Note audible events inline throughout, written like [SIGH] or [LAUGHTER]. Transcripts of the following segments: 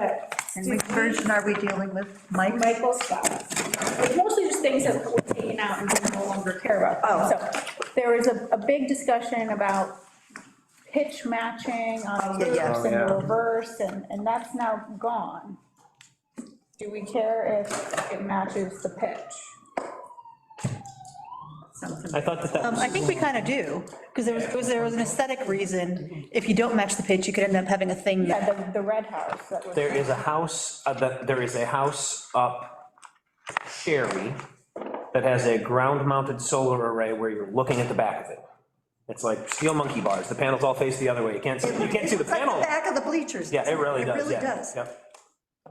And which version are we dealing with, Mike? Michael Scott. It's mostly just things that were taken out and we no longer care about. Oh. So there was a, a big discussion about pitch matching on Yeah, yeah. reverse Oh, yeah. and reverse, and, and that's now gone. Do we care if it matches the pitch? Something. I thought that that Um, was. I think we kind of do, because there was- there was, there was an aesthetic reason. If you don't match the pitch, you could end up having a thing that Yeah, Uh, the, the red house that was. There is a house, uh, that, there is a house up Sherry that has a ground-mounted solar array where you're looking at the back of it. It's like steel monkey bars, the panels all face the other way, you can't see, you can't see the It's like panel. Back of the bleachers. Yeah, it really does, yeah. It really does. Yep.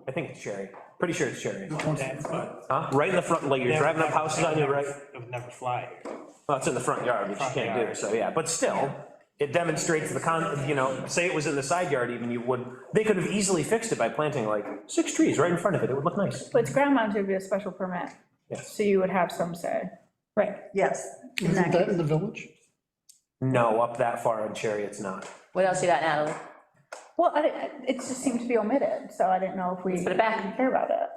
I think it's Sherry, pretty sure it's Sherry. That's what. Huh? Right in the front, like you're driving up houses on your right, It would never fly here. well, it's in the front yard, which you Front can't do, yard. so, yeah, but still, it demonstrates the con, you know, say it was in the side yard even, you would, they could have easily fixed it by planting like six trees right in front of it, it would look nice. But it's ground mounted would be a special permit, Yes. so you would have some say. Right. Yes. Isn't that in the village? No, up that far on Cherry, it's not. What else you got, Natalie? Well, I, didn't- it just seemed to be omitted, so I didn't know if we. put it back. didn't Care about it.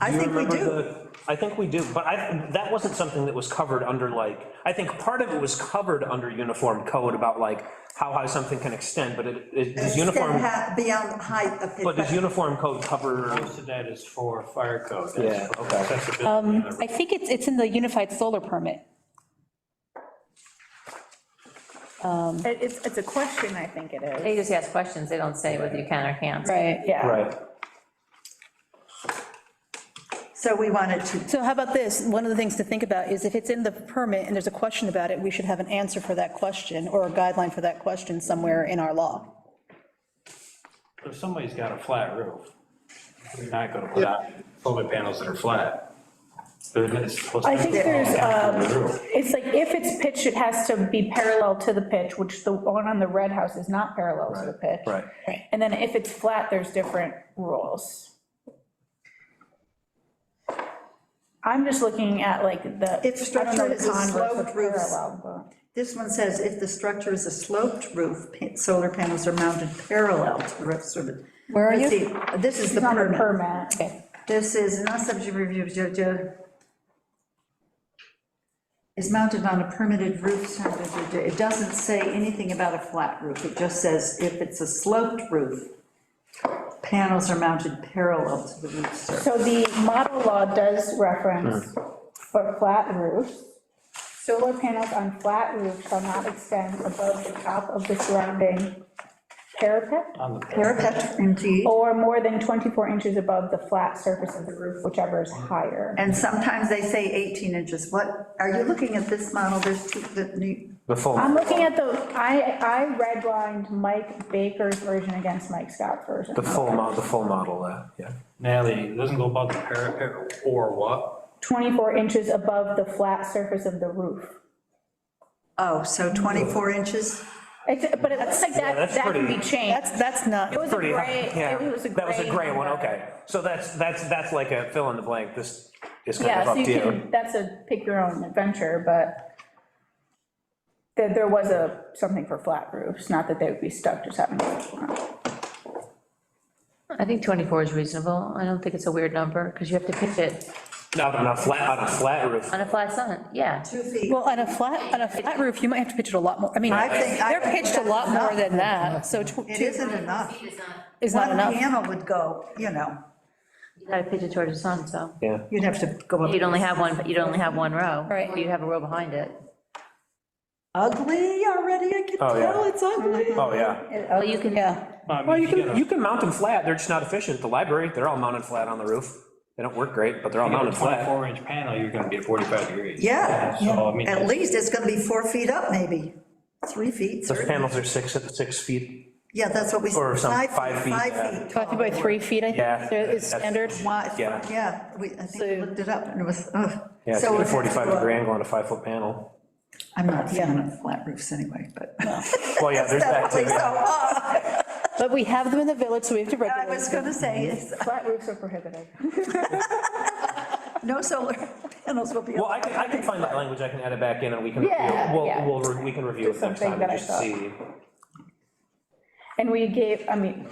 I Do you think we remember do. the- I think we do, but I, that wasn't something that was covered under like, I think part of it was covered under uniform code about like how high something can extend, but it, it, does Instead of uniform, ha- Beyond the height of it. but does uniform code cover? Most of that is for fire code. that's Yeah, for okay. accessibility on the road. I think it's, it's in the unified solar permit. It- It's, it's a question, I think it is. They just ask questions, they don't say whether you can or can't. Right. Yeah. Right. So we wanted to, So how about this? One of the things to think about is if it's in the permit and there's a question about it, we should have an answer for that question or a guideline for that question somewhere in our law. If somebody's got a flat roof, you're not gonna put out solar panels that are flat. They're not supposed to- I think there's, um, The roof. it's like, if it's pitched, it has to be parallel to the pitch, which the one on the red house is not parallel to the pitch. Right. And then if it's flat, there's different rules. I'm just looking at like the. I don't If know structure the is a con versus sloped roof. parallel, but- this one says if the structure is a sloped roof, pa- solar panels are mounted parallel to the rest of it. Where are Let's you? see, This is the It's not a permit. permit. This is not subject to review, jo- jo- is mounted on a permitted roof. jo- jo- jo- It doesn't say anything about a flat roof, it just says if it's a sloped roof, panels are mounted parallel to the roof surface. So the model law does Hmm. reference for flat roofs. Solar panels on flat roofs shall not extend above the top of the surrounding parapet On the- Parapet, indeed. or more than 24 inches above the flat surface of the roof, whichever is higher. And sometimes they say 18 inches. What, are you looking at this model? There's two, the new, The full. I'm looking at the, I, I redlined Mike Baker's version against Mike Scott's version. The full mo, the full model, uh, yeah. Natalie, it doesn't go above the parapet or what? 24 inches above the flat surface of the roof. oh, so 24 inches? It's- But it's like that, that's that can be pretty- changed. That's, that's not, It was a Pretty high, gray, yeah. it was a gray. That was a gray one, one. okay. So that's, that's, that's like a fill in the blank, this is kind of Yeah, up so you to you. can, that's a pick your own adventure, but there, there was a, something for flat roofs, not that they would be stuck to having. I think 24 is reasonable, I don't think it's a weird number, because you have to pitch it Not on a flat, on a flat roof. on a flat sun, yeah. Two feet. well, on a flat, on a flat roof, you might have to pitch it a lot more. I mean, I think- I they're think pitched a lot that's more than that, so tw- It two isn't enough. is not One enough. panel would go, you know, You gotta pitch it towards the sun, so. Yeah. you'd have to go You'd up. only have one, you'd only have one row. Right. Or You'd have a row behind it. Ugly already, I can Oh, yeah. tell, it's ugly. Oh, yeah. Well, you can, Yeah. Well, you can, you can mount them flat, they're just not efficient. The library, they're all mounted flat on the roof. They don't work great, but they're all On a mounted flat. 24 inch panel, you're gonna be at 45 degrees. Yeah, So, I mean. at least it's gonna be four feet up, maybe, three feet, Those three. panels are six, six feet, Yeah, that's what we. Or some- five feet, Five yeah. feet. Talking about three feet, I Yeah, think, is that's- standard. Wide, Yeah. yeah, we, I think we So- looked it up and it was, ugh. yeah, it's So got a it has to 45 go up. degree angle on a five foot panel. I'm not a fan of flat roofs anyway, but. Well, yeah, there's that too. Definitely so, yeah. uh, But we have them in the village, so we have to I regulate. was gonna say, it's, Flat roofs are prohibited. no solar [LAUGHS] panels will be. Well, I can, I can find that language, I can add it back in and we can, review Yeah, it. we'll, yeah. we'll, re- we can review it Just next something time that and I just thought. see. And we gave, I mean,